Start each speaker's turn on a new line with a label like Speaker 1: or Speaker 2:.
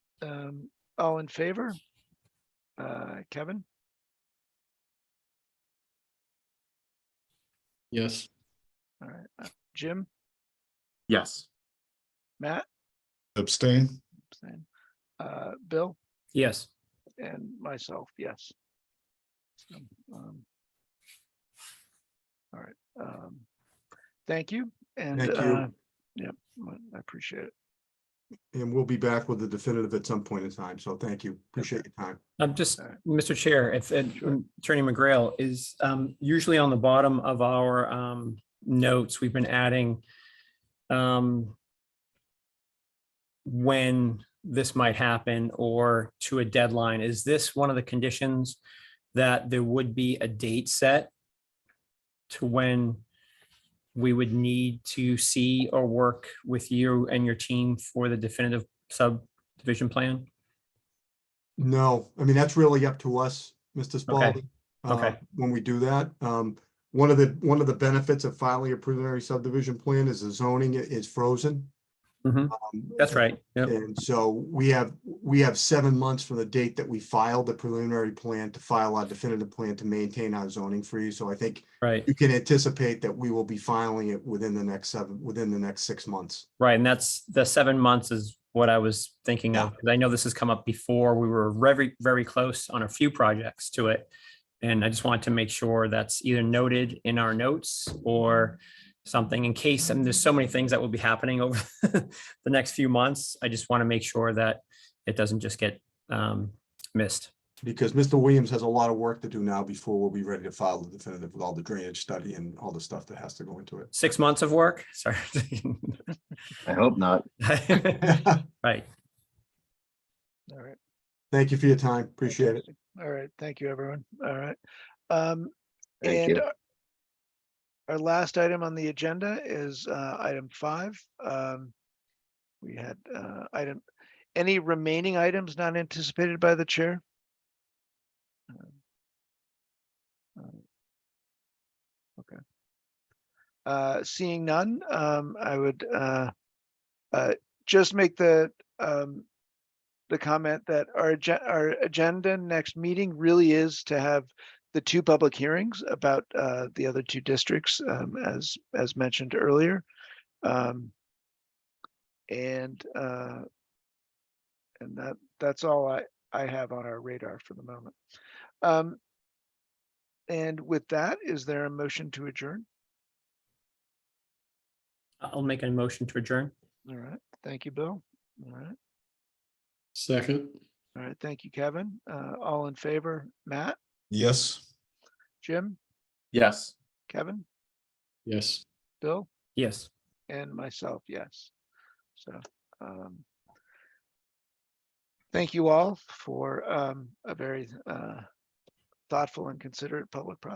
Speaker 1: Um, all in favor? Uh, Kevin,
Speaker 2: Yes.
Speaker 1: all right, uh, Jim,
Speaker 3: Yes.
Speaker 1: Matt,
Speaker 2: Abstain?
Speaker 1: same. uh, Bill
Speaker 3: Yes.
Speaker 1: and myself, yes. So, um, All right, um, thank you and,
Speaker 4: Thank you.
Speaker 1: uh, yep, I appreciate it.
Speaker 4: And we'll be back with the definitive at some point in time. So thank you. Appreciate your time.
Speaker 5: I'm Um, just,
Speaker 1: All right.
Speaker 5: Mr. Chair, if and um,
Speaker 1: Sure.
Speaker 5: Attorney McGrail is um, usually on the bottom of our um, notes, we've been adding um, when this might happen or to a deadline. Is this one of the conditions that there would be a date set to when we would need to see or work with you and your team for the definitive subdivision plan?
Speaker 4: No, I mean, that's really up to us, Mr. Spalding. uh,
Speaker 5: Okay.
Speaker 4: When we do that, um, one of the, one of the benefits of filing a preliminary subdivision plan is the zoning i- is frozen.
Speaker 5: Mhm.
Speaker 4: Um,
Speaker 5: That's right. Yep.
Speaker 4: And so we have, we have seven months from the date that we filed the preliminary plan to file our definitive plan to maintain our zoning freeze. So I think
Speaker 5: Right,
Speaker 4: you can anticipate that we will be filing it within the next seven, within the next six months.
Speaker 5: right. And that's the seven months is what I was thinking of. 'cause I know this has come up before. We were very, very close on a few projects to it. And I just wanted to make sure that's either noted in our notes or something in case, and there's so many things that will be happening over the next few months. I just want to make sure that it doesn't just get um, missed.
Speaker 4: Because Mr. Williams has a lot of work to do now before we'll be ready to file the definitive with all the drainage study and all the stuff that has to go into it.
Speaker 5: Six months of work, sorry.
Speaker 3: I hope not.
Speaker 5: Right.
Speaker 1: All right.
Speaker 4: Thank you for your time. Appreciate it.
Speaker 1: Fantastic. All right, thank you, everyone. All right. Um,
Speaker 3: Thank
Speaker 1: and
Speaker 3: you.
Speaker 1: our- our last item on the agenda is uh, item five. Um, We had uh, item, any remaining items not anticipated by the chair? Um, um, Okay. Uh, Seeing none, um, I would uh, uh, just make the um, the comment that our agen- our agenda next meeting really is to have the two public hearings about uh, the other two districts, um, as as mentioned earlier. Um, and uh, and that that's all I I have on our radar for the moment. Um, and with that, is there a motion to adjourn?
Speaker 5: I'll make a motion to adjourn.
Speaker 1: All right, thank you, Bill. All right,
Speaker 2: Second?
Speaker 1: all right, thank you, Kevin. Uh, all in favor, Matt,
Speaker 2: Yes.
Speaker 1: Jim,
Speaker 3: Yes.
Speaker 1: Kevin,
Speaker 2: Yes.
Speaker 1: Bill.
Speaker 5: Yes.
Speaker 1: and myself, yes. So, um, thank you all for, um, a very, uh, thoughtful and considerate public process.